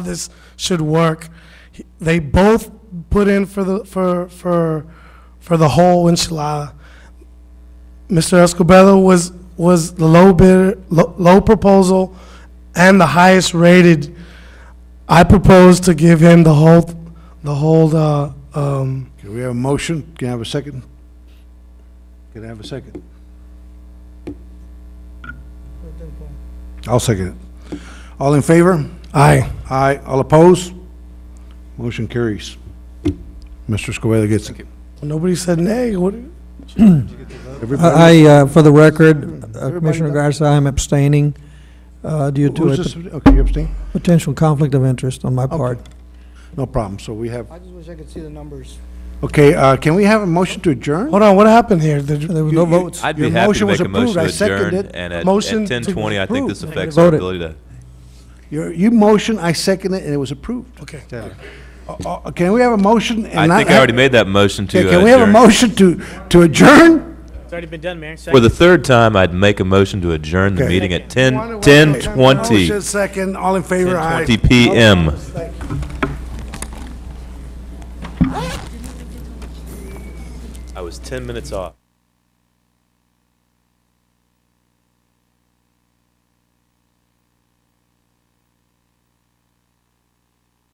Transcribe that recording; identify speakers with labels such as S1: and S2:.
S1: this should work. He- They both put in for the, for, for, for the whole enchilada. Mr. Escobedo was, was the low bid, low, low proposal and the highest rated. I propose to give him the whole, the whole, uh, um,
S2: Can we have a motion? Can I have a second? Can I have a second? I'll second it. All in favor?
S1: aye.
S2: Aye. All opposed? Motion carries. Mr. Scoville gets it.
S1: Nobody said nay, what,
S2: Everybody-
S3: I, uh, for the record, uh,
S2: Everybody
S3: Commissioner
S2: done?
S3: Garza, I'm abstaining uh, due
S2: Who
S3: to a
S2: was this? Okay, you abstain?
S3: pot- potential conflict of interest on my part.
S2: No problem, so we have,
S4: I just wish I could see the numbers.
S2: okay, uh, can we have a motion to adjourn?
S1: hold on, what happened here? Did you-
S3: There was no
S2: You- you-
S3: votes.
S5: I'd
S2: Your
S5: be happy to
S2: motion was
S5: make a
S2: approved.
S5: motion
S2: I
S5: to
S2: seconded
S5: adjourn,
S2: it.
S5: and at- at
S1: Motion to
S5: 10:20, I think this
S1: approve.
S5: affects
S3: Vote
S5: our
S3: it.
S5: ability to
S2: Your- You motion, I second it, and it was approved.
S1: Okay.
S2: Yeah. Uh, uh, Can we have a motion? and
S5: I
S2: not
S5: think I
S2: have-
S5: already made that motion to uh,
S2: Okay, Can we have a
S5: adjourn.
S2: motion to, to adjourn?
S6: It's already been done, Mayor.
S5: For the third time, I'd make a motion to adjourn the
S2: Okay.
S5: meeting at 10,
S2: Motion
S5: 10:20,
S2: Second, all in favor, aye.
S5: 10:20 PM. I was 10 minutes off.